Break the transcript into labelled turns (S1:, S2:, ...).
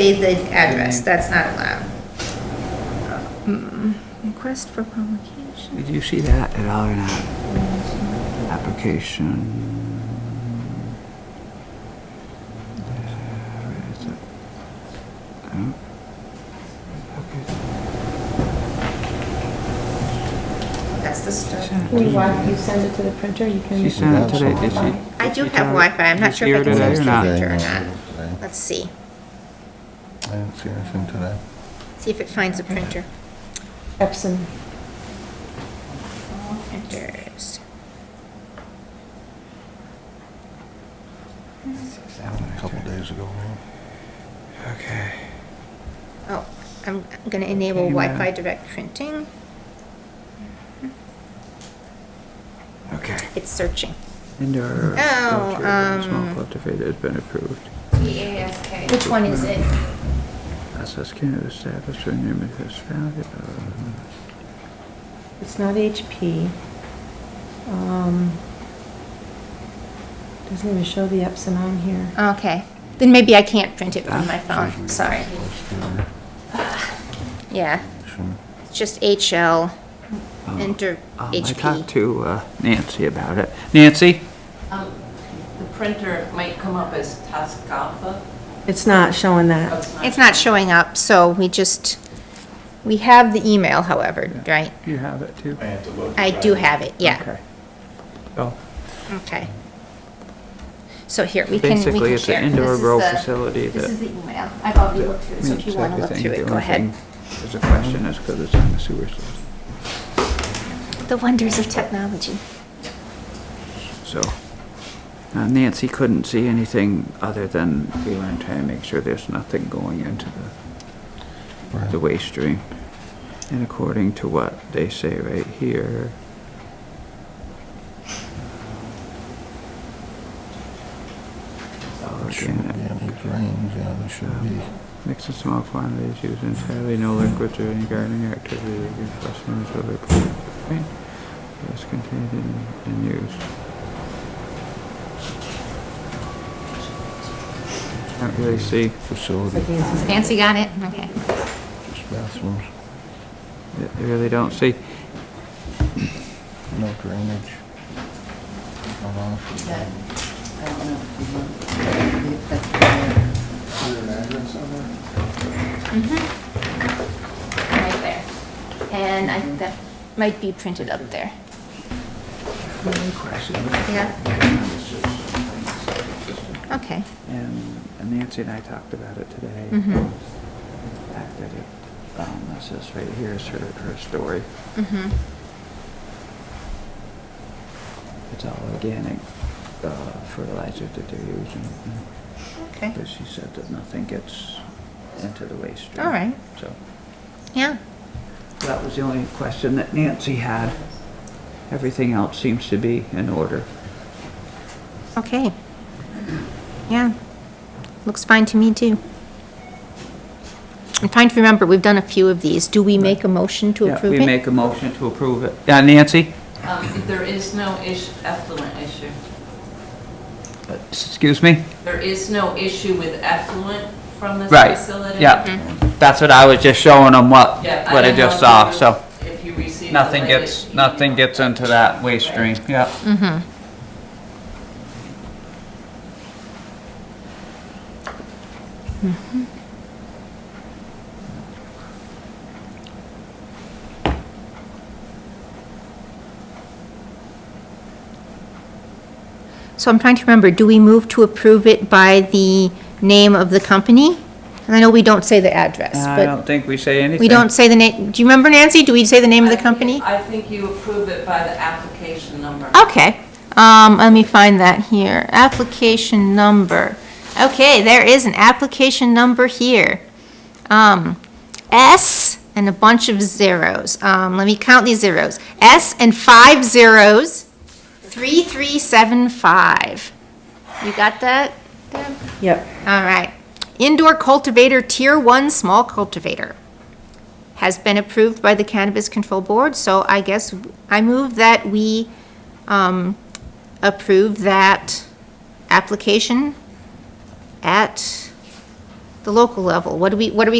S1: say the
S2: Mm-hmm.
S1: address, that's not allowed. Mm-hmm.
S3: Request for publication.
S2: Did you see that at all or not? Application. Where is it? Oh.
S1: That's the stuff.
S2: Okay.
S4: Can you walk, you send it to the printer, you can.
S2: She sent it today, did she?
S1: I do
S2: Did
S1: have
S2: you-
S1: Wi-Fi. I'm not
S2: did
S1: sure
S2: you
S1: if
S2: hear
S1: I
S2: it
S1: can
S2: today
S1: send it
S2: or not?
S1: to
S5: Today,
S1: or
S5: no,
S1: not.
S5: today.
S1: Let's see,
S5: I didn't see anything today.
S1: see if it finds a printer.
S4: Epson.
S1: Printers.
S5: A couple days ago, maybe.
S2: Okay.
S1: Oh, I'm gonna enable
S2: Okay, ma'am.
S1: Wi-Fi direct printing.
S2: Okay.
S1: It's searching.
S2: Indoor.
S1: Oh,
S2: culture of Small
S1: um,
S2: cultivator has been approved.
S1: Which one is it?
S2: Access can be established when neighborhood has founded. uh,
S4: It's not HP. Um, Doesn't even show the Epson on here.
S1: Okay, then maybe I can't print it from my
S2: Oh, Ah,
S1: phone, sorry. Yeah,
S5: Shouldn't-
S1: it's just HL,
S2: Oh.
S1: enter
S2: um, I
S1: HP.
S2: talked to uh, Nancy about it. Nancy?
S6: Um, The printer might come up as Tascalpa.
S4: It's not showing
S6: but
S4: that.
S1: It's not showing up, so we just, we have the email, however, right?
S2: You have it too?
S1: I do have it, yeah,
S2: Okay. Oh,
S1: okay. So here, we can, we can share.
S2: basically, it's an indoor
S1: This is
S2: grow
S1: the-
S2: facility that.
S1: This is the email, I've already looked through it, so if you
S2: meets
S1: want to look
S2: everything.
S1: through
S2: The
S1: it, go
S2: only
S1: ahead.
S2: thing There's a question, is because it's on the sewer system,
S1: The wonders of technology.
S2: so. uh, Nancy couldn't see anything other than we were trying to make sure there's nothing going into the,
S5: Right.
S2: the waste stream. And according to what they say right here,
S5: There shouldn't be any drains, you know, there should be.
S2: Mix in small quantities, use entirely no liquids or any gardening activity that gives customers or their complaint. That's contained in, in use. Can't really see.
S5: Facility,
S1: Nancy got it? Okay.
S5: just bathrooms,
S2: I really don't see.
S5: no drainage. No lawn for
S6: That,
S5: drainage.
S6: I don't know if you want, if that's there.
S1: Mm-hmm. Right there. And I think that might be printed up there. Yeah? Okay.
S2: And and Nancy and I talked about it today.
S1: Mhm.
S2: The fact that it, um, this is right here is her, her story.
S1: Mm-hmm.
S2: It's all organic, uh, fertilizer that they're using.
S1: Okay.
S2: But she said that nothing gets into the waste stream.
S1: All right.
S2: So
S1: Yeah.
S2: that was the only question that Nancy had.
S6: Um,
S2: Everything else seems to be in order.
S1: Okay. Yeah. Looks fine to me, too. I'm trying to remember, we've done a few of these. Do we make a motion to
S2: Yeah,
S1: approve
S2: We
S1: it?
S2: make a motion to approve it. Yeah, Nancy?
S6: Um, There is no ish- effluent issue.
S2: Uh, Excuse me?
S6: There is no issue with effluent from this
S2: Right,
S6: facility.
S2: yeah. That's what I was just showing them what,
S6: Yeah,
S2: what I
S6: don't know
S2: just
S6: if
S2: saw,
S6: you-
S2: so
S6: If you receive. the
S2: nothing
S6: latest
S2: gets, nothing
S6: email.
S2: gets into that waste stream, yeah.
S1: So I'm trying to remember, do we move to approve it by the name of the company? And I know we don't say the address,
S2: I
S1: but
S2: don't think we say anything.
S1: we don't say the name, do you remember, Nancy? Do we say the name of the
S6: I think-
S1: company?
S6: I think you approve it by the application number.
S1: Okay, um, let me find that here. Application number. Okay, there is an application number here. Um, S and a bunch of zeros. Um, let me count these zeros. S and five zeros, three, three, seven, five. You got that, Deb?
S4: Yep.
S1: All right. Indoor cultivator, tier one, small cultivator. Has been approved by the Cannabis Control Board, so I guess I move that we, um, approve that application at the local level? What do we, what do we